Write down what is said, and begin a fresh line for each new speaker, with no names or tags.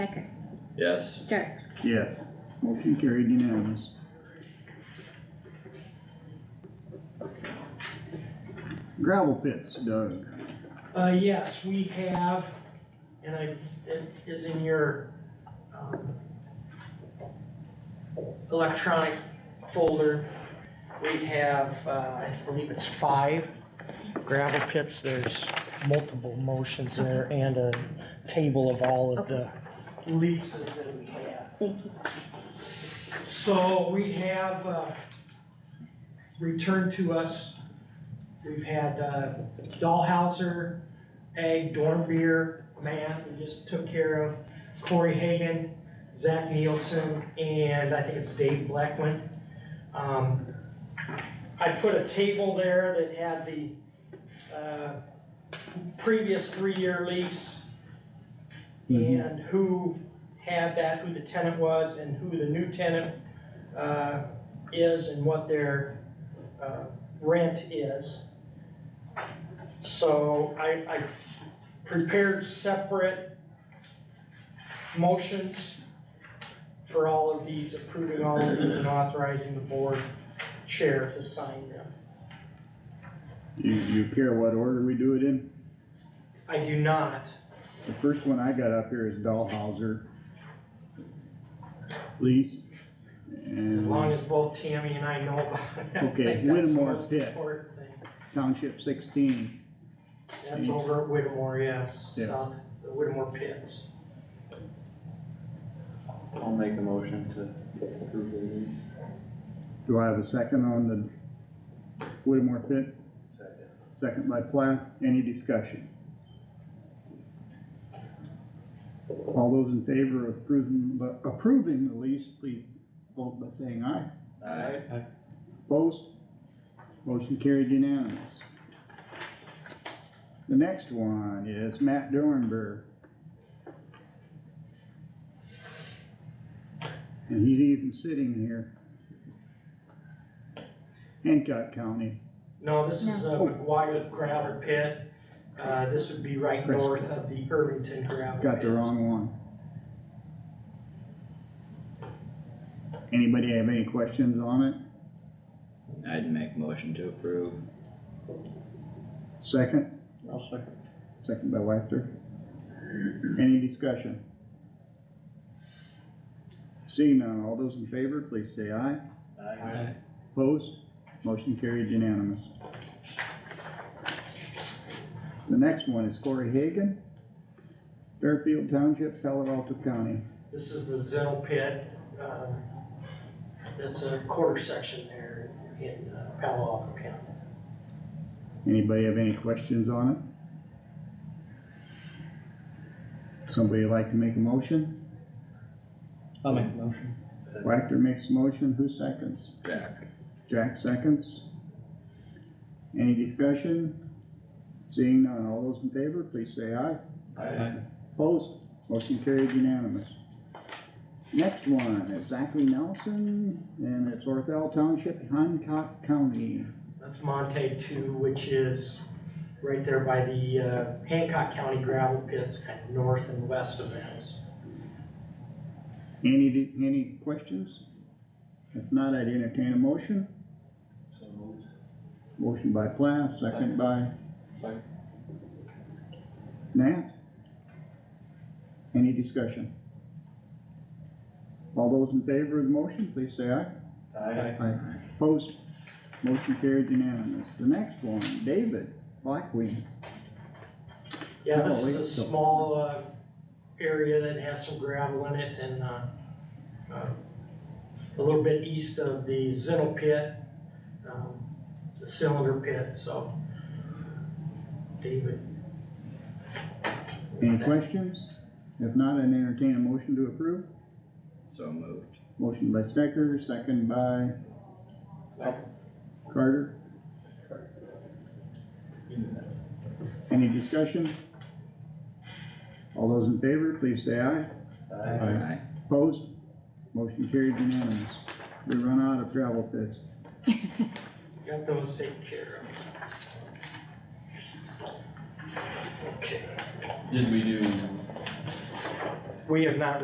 Stecker,
Yes,
Jerks.
Yes. Motion carried unanimous. Gravel pits, Doug.
Uh, yes, we have, and I, it is in your, um, electronic folder. We have, uh, I believe it's five gravel pits. There's multiple motions there and a table of all of the leases that we have.
Thank you.
So we have, uh, returned to us, we've had, uh, Dahlhauser, Ag, Dornbeer, Mann, we just took care of, Corey Hagan, Zach Nielsen, and I think it's Dave Blackman. Um, I put a table there that had the, uh, previous three-year lease,
Mm-hmm.
and who had that, who the tenant was, and who the new tenant, uh, is, and what their, uh, rent is. So I, I prepared separate motions for all of these, approving all of these and authorizing the board chair to sign them.
Do you care what order we do it in?
I do not,
The first one I got up here is Dahlhauser. Lease.
as
And
long as both Tammy and I know about it. I
Mm-hmm. Okay,
think that's the
Whittemore
most
pit.
important thing.
township sixteen,
That's over at Whittemore, yes,
Yeah.
south, the Whittemore pits.
I'll make a motion to approve the lease.
do I have a second on the Whittemore pit?
Second.
Second by Plath, any discussion? All those in favor of approving, approving the lease, please vote by saying aye.
aye,
Opposed? Motion carried unanimous. The next one is Matt Dornberg. And he's even sitting here. Hancock County,
No, this is a
No.
McGuire gravel pit. Uh, this would be right
Chris.
north of the Irvington gravel pits.
got the wrong one. Anybody have any questions on it?
I'd make motion to approve,
Second,
I'll second.
second by Wactor. Any discussion? Seeing none, all those in favor, please say aye.
Aye.
Opposed? Motion carried unanimous. The next one is Corey Hagan, Fairfield Township, Palo Alto County.
This is the Zell pit. um, That's a quarter section there in uh, Palo Alto County.
Anybody have any questions on it? Somebody like to make a motion?
I'll make the motion. Second.
Wactor makes a motion, who seconds?
Jack,
Jack seconds. Any discussion? Seeing none, all those in favor, please say aye.
aye,
Opposed, motion carried unanimous. Next one is Zachary Nelson, and it's Orthel Township, Hancock County.
That's Monte Two, which is right there by the uh, Hancock County gravel pits, kind of north and west of those.
Any, any questions? If not, I'd entertain a motion.
So moved.
Motion by Plath, second
Second.
by
Second.
Nat. Any discussion? All those in favor of the motion, please say aye.
Aye.
Aye. Opposed? Motion carried unanimous. The next one, David Blackwing.
Yeah, this is
Probably,
a
so.
small, uh, area that has some gravel in it and, uh, uh, a little bit east of the Zinnel pit, um, the cylinder pit, so. David.
Any questions? If not, I'd entertain a motion to approve.
so moved,
Motion by Stecker, second by
Second.
Carter. Any discussion? All those in favor, please say aye.
Aye.
aye,
Opposed? Motion carried unanimous. We run out of gravel pits.
Got those taken care of. Okay,
Did we do
We have not